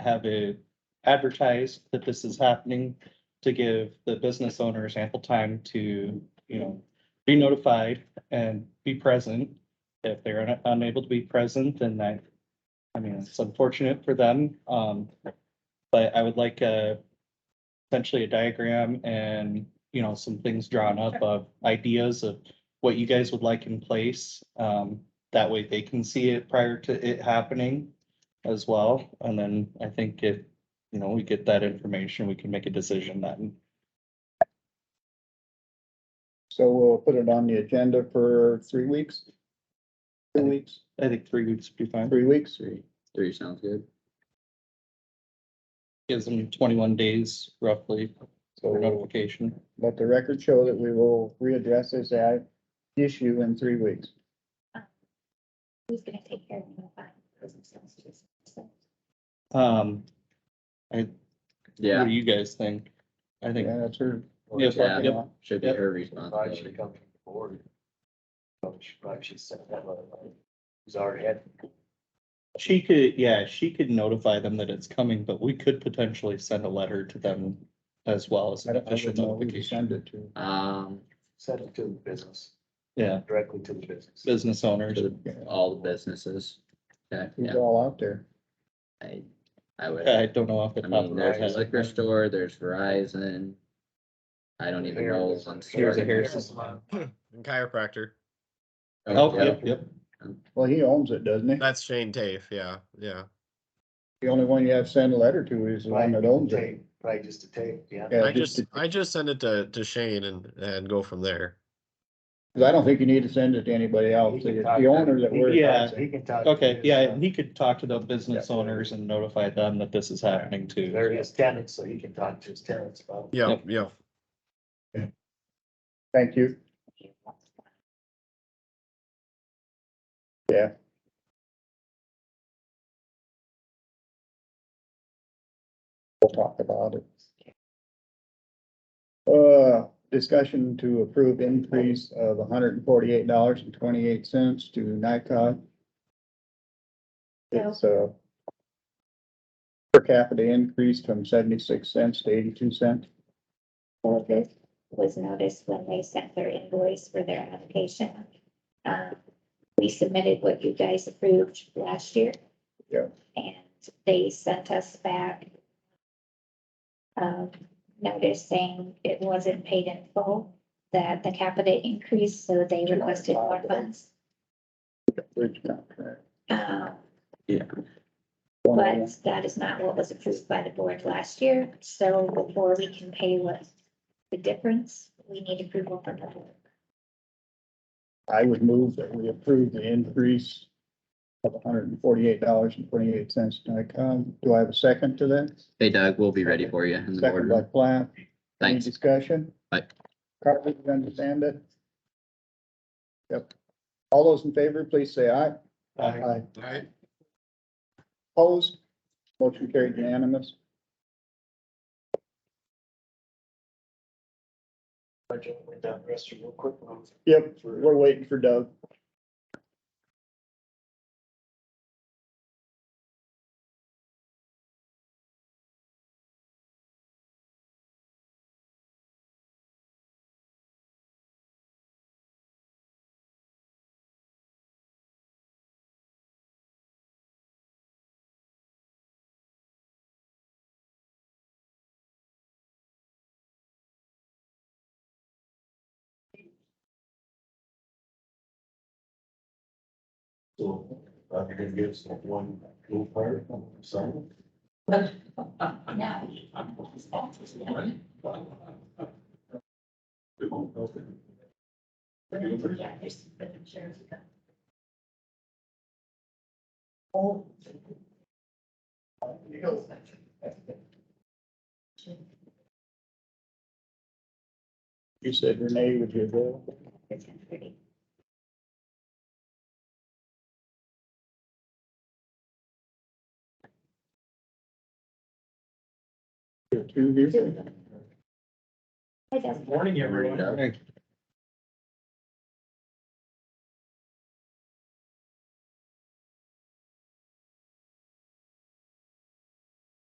have it advertised that this is happening to give the business owners ample time to, you know, be notified and be present. If they're un- unable to be present, then that, I mean, it's unfortunate for them. Um, but I would like a essentially a diagram and, you know, some things drawn up of ideas of what you guys would like in place. Um, that way they can see it prior to it happening as well. And then I think if, you know, we get that information, we can make a decision then. So we'll put it on the agenda for three weeks? Two weeks, I think three weeks would be fine. three weeks? Three, three sounds good. Gives them twenty-one days roughly for So notification. let the record show that we will readdress this ad issue in three weeks. Who's gonna take care of notifying business owners? Um, what Yeah, do you guys think? I think, Yeah, that's her. Yes, yeah. yep. should be Yep. her Probably should responsibility. come from the board. Probably should- probably should set that up. He's already had, she could, yeah, she could notify them that it's coming, but we could potentially send a letter to them as well as I an don't, I official don't know who to notification. send it to. Um, sent it to the business, Yeah, directly to the business. business owners. to all the businesses. Yeah, He's yeah, all out there. I, I would, I I don't know off the top of mean, my there's a head. liquor store, there's Verizon. I don't even know. Here's- one Here's a store. hair salon. And chiropractor. Oh, yeah. yep, yep. Well, he owns it, doesn't he? That's Shane Tafe. Yeah, yeah. The only one you have to send a letter to is the one that owns it. Tape, Probably just a tape, yeah. Yeah, I just to- I just send it to, to Shane and and go from there. Cause I don't think you need to send it to anybody else. He can It's talk the to- owner that he we're. can Yeah. talk- He can talk. to Okay, his, yeah, uh, he could talk to the business owners and notify them that this is happening too. They're his tenants, so he can talk to his tenants about. Yeah, Yep. yeah. Thank you. Yeah. We'll talk about it. Uh, discussion to approve increase of hundred and forty-eight dollars and twenty-eight cents to Nikon. It's a per capita increase from seventy-six cents to eighty-two cents. All of this was noticed when they sent their invoice for their application. Um, we submitted what you guys approved last year. Yeah. And they sent us back um, notice saying it wasn't paid in full, that the capita increased, so they requested more funds. Bridge contract. Um, Yeah. Oh, But that is not what was approved by the board last year, so before we can pay what the difference, we need approval from the board. I would move that we approve the increase of hundred and forty-eight dollars and twenty-eight cents to Nikon. Do I have a second to that? Hey Doug, we'll be ready for you in the Second by boardroom. Plath. Any Thanks. discussion? Aye. Carly, you understand it? Yep. All those in favor, please say aye. Aye. All right. Opposed? Motion carried unanimous. Budget went down the restroom real quick. real quick. Yep, we're waiting for Doug. So, uh, you're gonna give us like one little part, some. Now, We won't open. yeah, there's, I'm sure. You said Renee would be available. It's ten thirty. There are two here. Hi, Dustin. Morning, everyone. Alright,